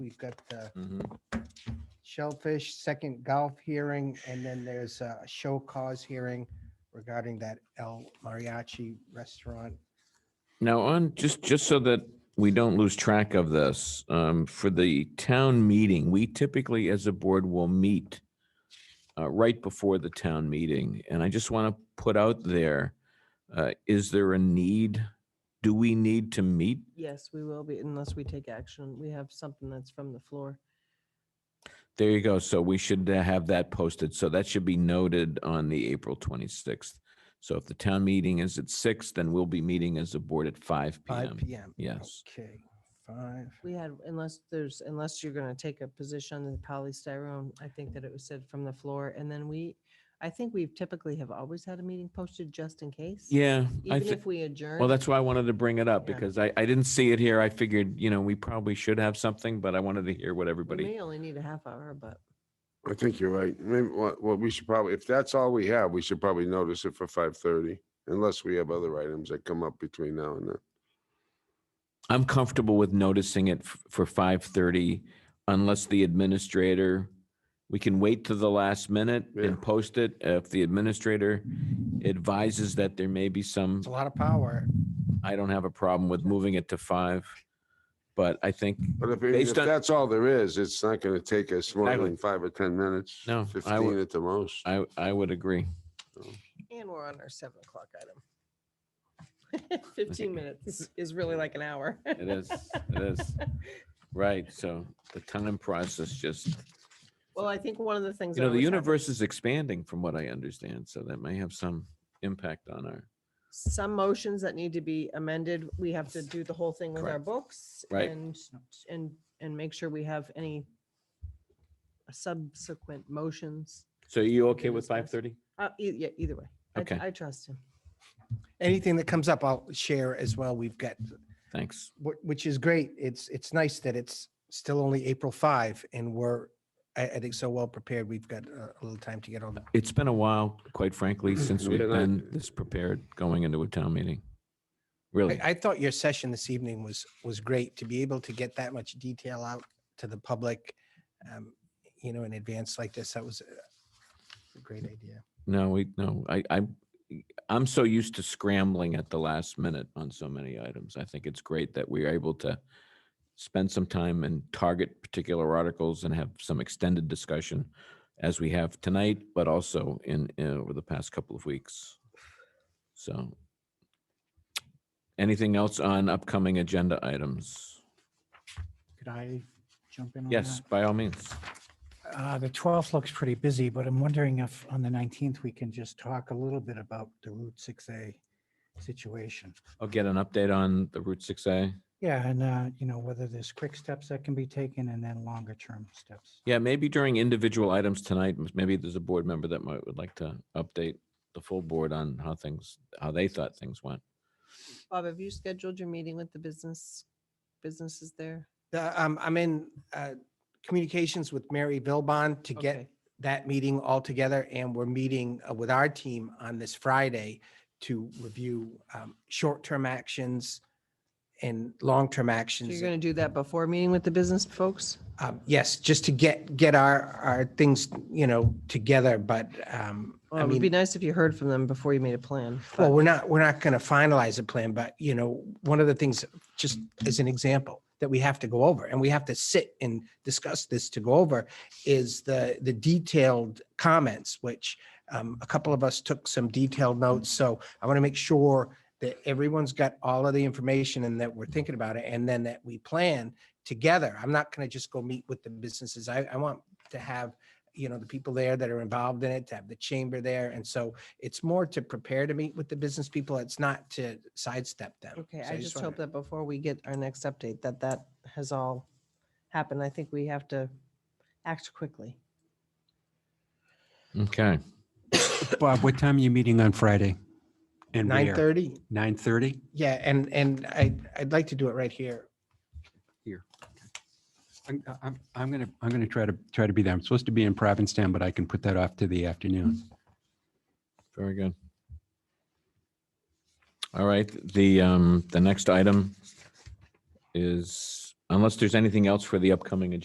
We've got uh, Mhm. Shellfish, second golf hearing, and then there's a show cause hearing regarding that El Mariachi restaurant. Now, on, just, just so that we don't lose track of this, um, for the town meeting, we typically as a board will meet uh, right before the town meeting. And I just want to put out there, uh, is there a need? Do we need to meet? Yes, we will be unless we take action. We have something that's from the floor. There you go. So we should uh, have that posted. So that should be noted on the April 26th. So if the town meeting is at six, then we'll be meeting as a board at five Five PM. PM. Yes. Okay, five. We had, unless there's, unless you're gonna take a position on the polystyrene, I think that it was said from the floor. And then we, I think we've typically have always had a meeting posted just in case. Yeah. I Even thi- if we adjourn. Well, that's why I wanted to bring it up Yeah. because I, I didn't see it here. I figured, you know, we probably should have something, but I wanted to hear what We everybody. may only need a half hour, but I think you're right. Maybe, well, well, we should probably, if that's all we have, we should probably notice it for five thirty, unless we have other items that come up between now and then. I'm comfortable with noticing it f- for five thirty unless the administrator, we can wait to the last minute Yeah. and post it. If the administrator advises that there may be some, It's a lot of power. I don't have a problem with moving it to five. But I think, But if, even if Based on- that's all there is, it's not gonna take us more Exactly. than five or ten minutes. No, I would- Fifteen at the most. I, I would agree. and we're on our seven o'clock item. Fifteen minutes is really like an hour. It is, it is. Right, so the time process just Well, I think one of the things. You I know, the always have- universe is expanding from what I understand, so that may have some impact on our, some motions that need to be amended. We have to do the whole thing with our Correct. books. Right. And, and, and make sure we have any subsequent motions. so are you We okay can with discuss. five thirty? Uh, e- yeah, either way. I- Okay. I trust him. Anything that comes up, I'll share as well. We've got, Thanks. wh- which is great. It's, it's nice that it's still only April five and we're, I, I think so well prepared. We've got uh, a little time to get all the It's been a while, quite frankly, since we've Yeah, that- been this prepared going into a town meeting. I, Really, I thought your session this evening was, was great to be able to get that much detail out to the public, um, you know, in advance like this. That was a- a great idea. no, we, no, I, I, I'm so used to scrambling at the last minute on so many items. I think it's great that we're able to spend some time and target particular articles and have some extended discussion as we have tonight, but also in, in over the past couple of weeks. So anything else on upcoming agenda items? Could I jump in on that? Yes, by all means. Uh, The 12th looks pretty busy, but I'm wondering if on the 19th, we can just talk a little bit about the Route 6A situation. I'll get an update on the Route six A. Yeah, and, uh, you know, whether there's quick steps that can be taken and then longer-term steps. Yeah, maybe during individual items tonight, m- maybe there's a board member that might would like to update the full board on how things, how they thought things went. Bob, have you scheduled your meeting with the business, businesses there? Uh, Um, I'm in, uh, communications with Mary Vilbon to get Okay. that meeting all together and we're meeting uh, with our team on this Friday to review, um, short-term actions and long-term So actions. you're going to do that before meeting with the business folks? Um, yes, just to get, get our, our things, you know, together, but, um, Well, I it would mean. be nice if you heard from them before you made a plan. Well, but- we're not, we're not going to finalize a plan, but you know, one of the things, just as an example, that we have to go over and we have to sit and discuss this to go over is the, the detailed comments, which um, a couple of us took some detailed notes. So I want to make sure that everyone's got all of the information and that we're thinking about it and then that we plan together. I'm not going to just go meet with the businesses. I, I want to have, you know, the people there that are involved in it, to have the chamber there. And so it's more to prepare to meet with the business people. It's not to sidestep them. Okay, So I just wanna- hope that before we get our next update, that that has all happened. I think we have to act quickly. Okay. Bob, what time are you meeting on Friday? And Nine where? thirty? Nine thirty? Yeah, and, and I, I'd like to do it right here. I'm, I'm, I'm gonna, I'm gonna try to, try to be there. I'm supposed to be in Provincetown, but I can put that off to the afternoon. Very good. All right, the, um, the next item is, unless there's anything else for the upcoming agenda